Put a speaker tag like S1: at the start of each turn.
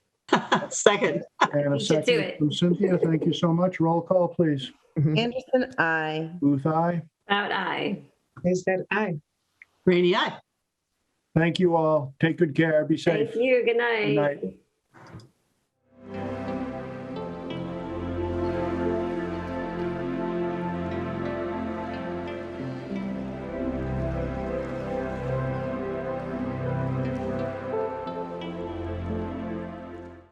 S1: Second,
S2: And
S3: You
S2: a
S3: should
S2: second
S3: do it.
S2: from Cynthia. Thank you so much. Roll call, please.
S4: Anderson, I.
S2: Booth, aye.
S3: About I.
S4: Is that I?
S1: Rainy, aye.
S2: Thank you all. Take good care. Be safe.
S3: Thank you.
S2: Good
S3: Good night.
S2: night.